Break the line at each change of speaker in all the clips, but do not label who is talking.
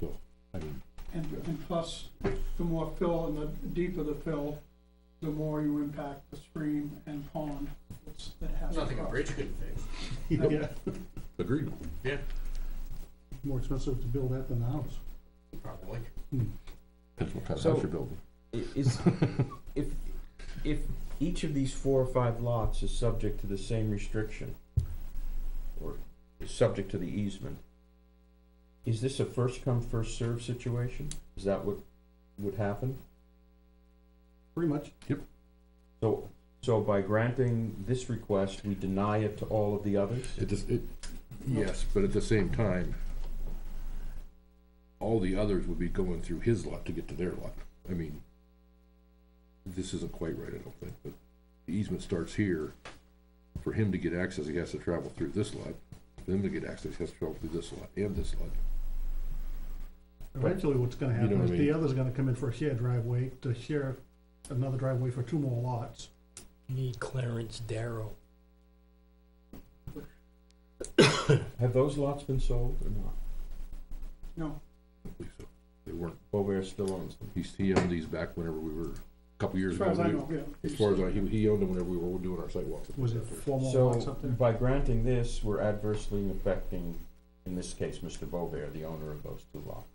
Plus, the more fill and the deeper the fill, the more you impact the stream and pond that's- that has.
Nothing a
across.
bridge could fix.
Yeah,
Agreed.
Yeah,
more expensive to build that than the house.
probably.
Depends what kind of
So-
house you're building.
I- Is, if, if each of these four or five lots is subject to the same restriction, or is subject to the easement, is this a first come, first served situation? Is that what would happen?
Pretty much,
So, so by granting this request, we deny it to all of the others?
It just, it, yes, but at the same time, all the others would be going through his lot to get to their lot. I mean, this isn't quite right, I don't think, but the easement starts here. For him to get access, he has to travel through this lot. For them to get access, he has to travel through this lot and this lot.
eventually what's gonna
You know
happen
what
is
I
the
mean.
other's gonna come in for a shared driveway, to share another driveway for two more lots.
Need Clarence Darrow.
Have those lots been sold or not?
No,
I believe so. They weren't,
Bovair still owns them.
he's, he owned these back whenever we were, a couple years
as
ago.
far as I
we-
know, yeah.
As far as I, he, he owned them whenever we were doing our sidewalks.
Was it four more lots
So,
up there?
by granting this, we're adversely affecting, in this case, Mr. Bovair, the owner of those two lots.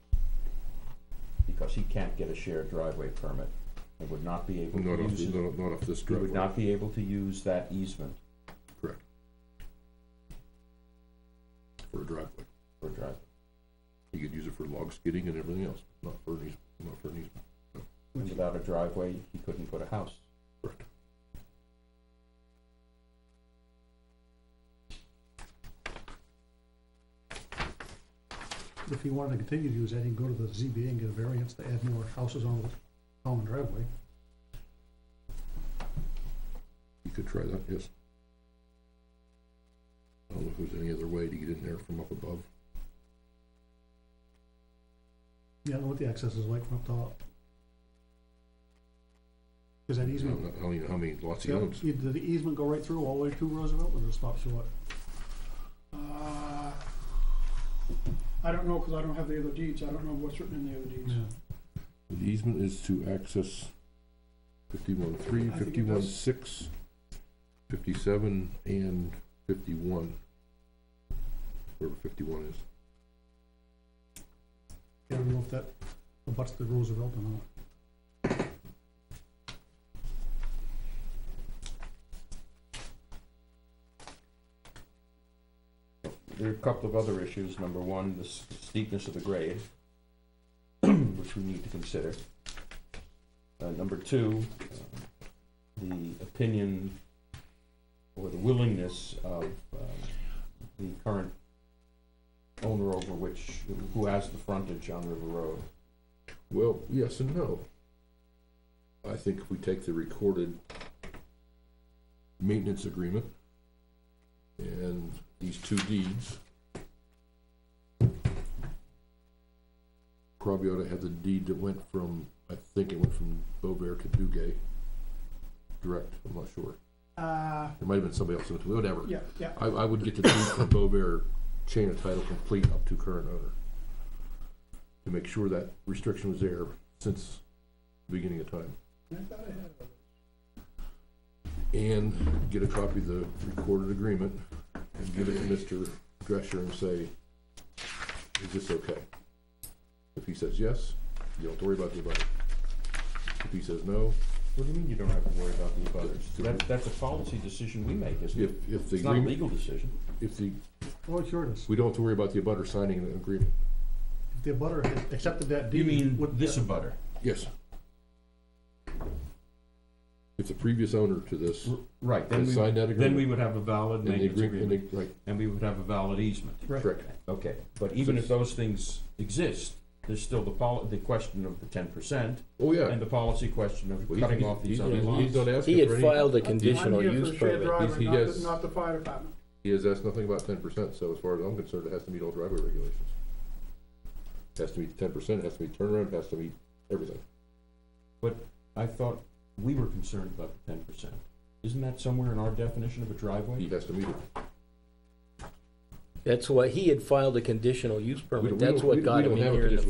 Because he can't get a shared driveway permit and would not be able
Not
to
off,
use, it-
not, not off this
he would
driveway.
not be able to use that easement
Correct. For a driveway.
for driveway.
You could use it for log skidding and everything else, not for an easement, not for an easement.
And without a driveway, he couldn't put a house.
Correct.
If he wanted to continue to use that, he can go to the ZBA and get a variance to add more houses on the common driveway.
You could try that, yes. I don't know if there's any other way to get in there from up above.
Yeah, I don't know what the access is like from up top. Is that
I
easement?
don't know- I don't even know how many lots he
Yep,
owns.
either Did the easement go right through all the way to Roosevelt or did it stop short?
Uh, I don't know, because I don't have the other deeds. I don't know what's written in the other deeds.
The easement is to access fifty-one three,
I think it
fifty-one
does.
six, fifty-seven, and fifty-one. Wherever fifty-one is.
I don't know if that abuts the Roosevelt or not.
There are a couple of other issues. Number one, the s- steepness of the grade, which we need to consider. Uh, number two, um, the opinion or the willingness of, um, the current owner over which, who has the frontage on River Road.
Well, yes and no. I think if we take the recorded maintenance agreement and these two deeds, probably ought to have the deed that went from, I think it went from Bovair to Dugay, direct, I'm not sure.
Uh,
It might have been somebody else, whatever.
yeah, yeah.
I, I would get the deed from Bovair, chain of title complete up to current owner. To make sure that restriction was there since the beginning of time.
I thought I had it.
And get a copy of the recorded agreement and give it to Mr. Drescher and say, is this okay? If he says yes, you don't have to worry about the abutter. If he says no,
What do you mean you don't have to worry about the
abutters?
That, that's a policy decision we make, isn't
if,
it?
if the
It's not a
agreement,
legal decision.
if the,
Oh, sure it is.
we don't have to worry about the abutter signing an agreement.
If the abutter had accepted that deed.
You mean
would-
this abutter?
Yes. If the previous owner to this
R- Right, then
has
we,
signed that
then we
agreement.
would have a valid
and they
maintenance
agree- and
agreement.
they- Right,
and we would have a valid easement.
Right.
correct.
Okay, but even if those things exist, there's still the poli, the question of the ten percent,
Oh, yeah.
and the policy question of
Well, he-
cutting
he-
off these
he's-
other
he's-
lots.
He's not
He
asking for
had
any,
filed a conditional use
I'm
permit.
here for the
He-
shared
he
driveway, not
has-
the, not the fire department.
he has asked nothing about ten percent, so as far as I'm concerned, it has to meet all driveway regulations. Has to meet ten percent, has to meet turnaround, has to meet everything.
I thought we were concerned about the ten percent. Isn't that somewhere in our definition of a
He
driveway?
has to meet it.
That's why, he had filed a conditional use
We
permit.
don't- we
That's
don't- we-
what got
we
him
don't
in
have a
here in the
conditional